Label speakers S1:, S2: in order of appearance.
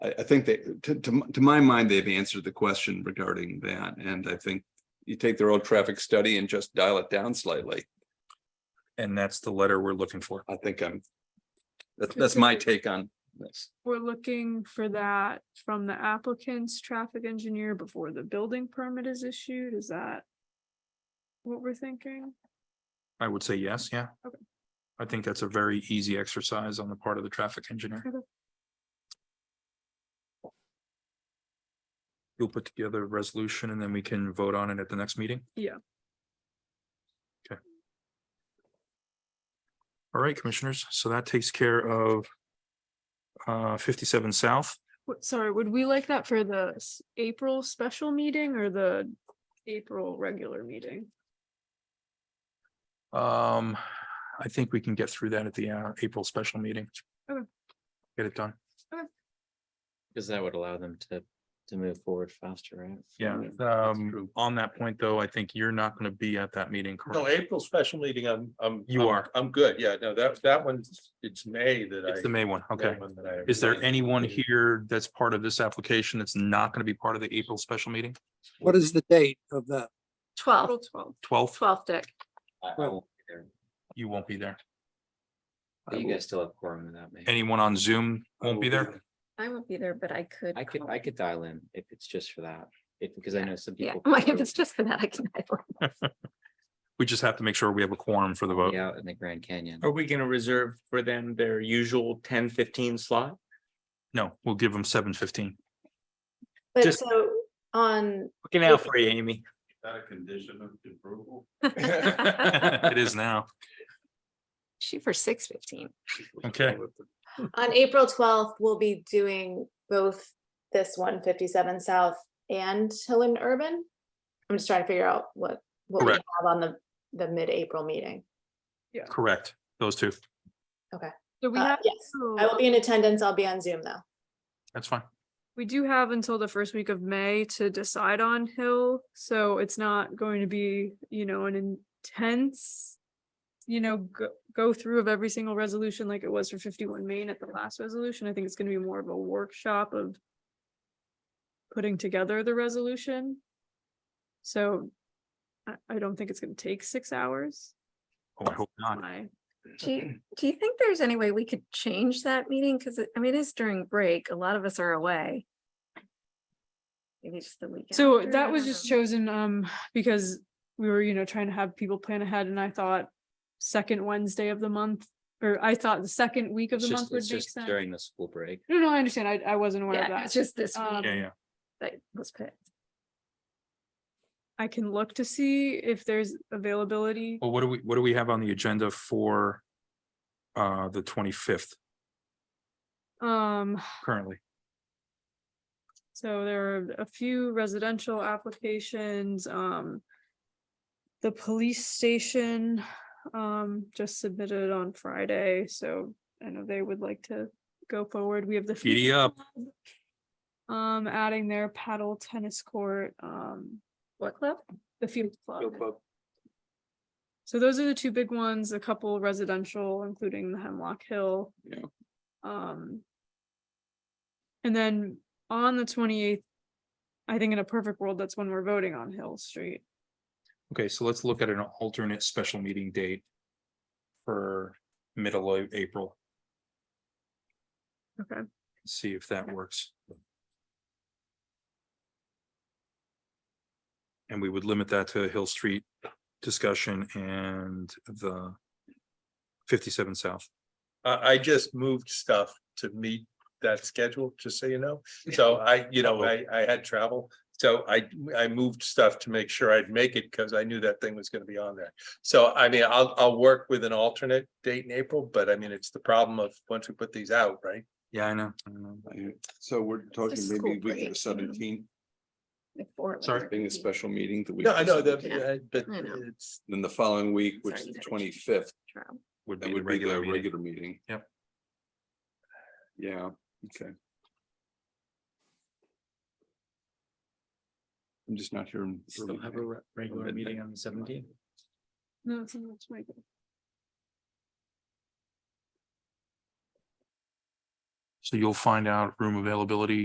S1: I, I think that, to, to, m- to my mind, they've answered the question regarding that, and I think you take the road traffic study and just dial it down slightly.
S2: And that's the letter we're looking for.
S1: I think I'm, that's, that's my take on this.
S3: We're looking for that from the applicant's traffic engineer before the building permit is issued, is that? What we're thinking?
S2: I would say yes, yeah.
S3: Okay.
S2: I think that's a very easy exercise on the part of the traffic engineer.
S3: Okay.
S2: You'll put together a resolution and then we can vote on it at the next meeting?
S3: Yeah.
S2: Okay. All right, commissioners, so that takes care of uh fifty-seven South.
S3: What, sorry, would we like that for the s- April special meeting or the April regular meeting?
S2: Um, I think we can get through that at the uh April special meeting.
S3: Okay.
S2: Get it done.
S4: Because that would allow them to, to move forward faster, right?
S2: Yeah, um, on that point, though, I think you're not gonna be at that meeting,
S5: No,
S2: correct?
S5: April special meeting, I'm, I'm.
S2: You
S5: I'm-
S2: are.
S5: I'm good, yeah, no, that, that one's, it's May that I.
S2: It's the May one, okay.
S5: that one that I-
S2: Is there anyone here that's part of this application that's not gonna be part of the April special meeting,
S6: What is the date of that?
S3: April
S7: Twelfth,
S3: twelfth.
S2: twelfth?
S7: twelfth, Dick.
S4: I- I
S6: Well-
S4: won't be there,
S2: You won't be there.
S4: but You guys still have quorum in that, maybe.
S2: Anyone on Zoom won't be there?
S7: I won't be there, but I could.
S4: I could,
S7: call.
S4: I could dial in if it's just for that, if, because I know some
S7: Yeah,
S4: people.
S7: like if it's just for that, I can. I will.
S2: We just have to make sure we have a quorum for the vote.
S4: Out in the Grand Canyon.
S8: Oh. Are we gonna reserve for them their usual 10, 15 slot?
S2: No, we'll give them seven fifteen.
S8: Just-
S7: But so on.
S8: Looking out for you, Amy.
S5: Is that a condition of approval?
S2: It is now.
S7: Shoot for six fifteen.
S2: Okay.
S7: On April twelfth, we'll be doing both this one fifty-seven South and Hill and Urban. I'm just trying to figure out what, what we have
S2: Correct.
S7: on the, the mid-April meeting.
S2: Correct. Those two.
S3: So we
S7: Uh,
S3: have,
S7: Yes, I will
S3: until-
S7: be in attendance. I'll be on Zoom though.
S2: That's fine.
S3: we do have until the first week of May to decide on Hill, so it's not going to be, you know, an intense. You know, go, go through of every single resolution like it was for fifty-one Main at the last resolution, I think it's gonna be more of a workshop of. Putting together the resolution. So. I, I don't think it's gonna take six hours,
S2: Oh, I hope not.
S3: my
S9: Do you, do you think there's any way we could change that meeting? Cause it- I mean, it is during break. A lot of us are away. Maybe just the weekend.
S3: So
S9: after, I
S3: that was
S9: don't
S3: just
S9: know.
S3: chosen, um, because we were, you know, trying to have people plan ahead and I thought second Wednesday of the month, or I thought the second week of
S4: It's
S3: the
S4: just,
S3: month would
S4: it's
S3: make
S4: just
S3: sense.
S4: during the school break.
S3: No, no, I understand. I, I wasn't aware of
S9: Yeah, it's
S3: that.
S9: just this
S3: Um,
S9: week
S2: Yeah, yeah.
S9: that was picked.
S3: I can look to see if there's availability.
S2: Well, what do we, what do we have on the agenda for uh the twenty-fifth
S4: Oh.
S3: Um,
S2: currently?
S3: So there are a few residential applications, um. The police station, um, just submitted on Friday, so I know they would like to go forward. We have the.
S2: Giddy
S3: Phoenix
S2: up.
S3: Club, Um, adding their paddle tennis court, um,
S9: What club?
S3: the field club. So those are the two big ones, a couple residential, including the Hemlock Hill.
S1: Yeah.
S3: Um. And then on the twenty eighth, I think in a perfect world, that's when we're voting on Hill Street.
S2: Okay, so let's look at an alternate special meeting date for middle of April.
S3: Okay.
S2: See if that works. And we would limit that to Hill Street discussion and the fifty-seven South.
S5: I, I just moved stuff to meet that schedule, just so you know. So I, you know, I, I had travel. So I, I moved stuff to make sure I'd make it because I knew that thing was gonna be on there. So I mean, I'll, I'll work with an alternate date in April, but I mean, it's the problem of once we put these out, right?
S2: Yeah, I know. I know.
S1: So we're talking
S9: school
S1: maybe week
S9: break,
S1: of
S9: yeah.
S1: seventeen,
S9: Before it was
S2: Sorry,
S1: being a
S9: busy.
S1: special meeting the week.
S5: No, I
S1: of
S5: know that,
S1: 17.
S5: uh, but
S9: I know.
S5: it's,
S1: Then the following week, which
S9: Sorry,
S1: is
S9: you
S1: the
S9: gotta
S1: twenty
S9: change
S1: fifth,
S9: Trial.
S2: Would
S1: that
S2: be the
S1: would be the
S2: regular meeting.
S1: regular meeting.
S2: Yep.
S1: Yeah, okay. I'm just not here. in early
S4: Still have
S1: May.
S4: a re- regular
S1: midnight.
S4: meeting on the seventeenth.
S3: No, it's not, it's my bad.
S2: So you'll find out room availability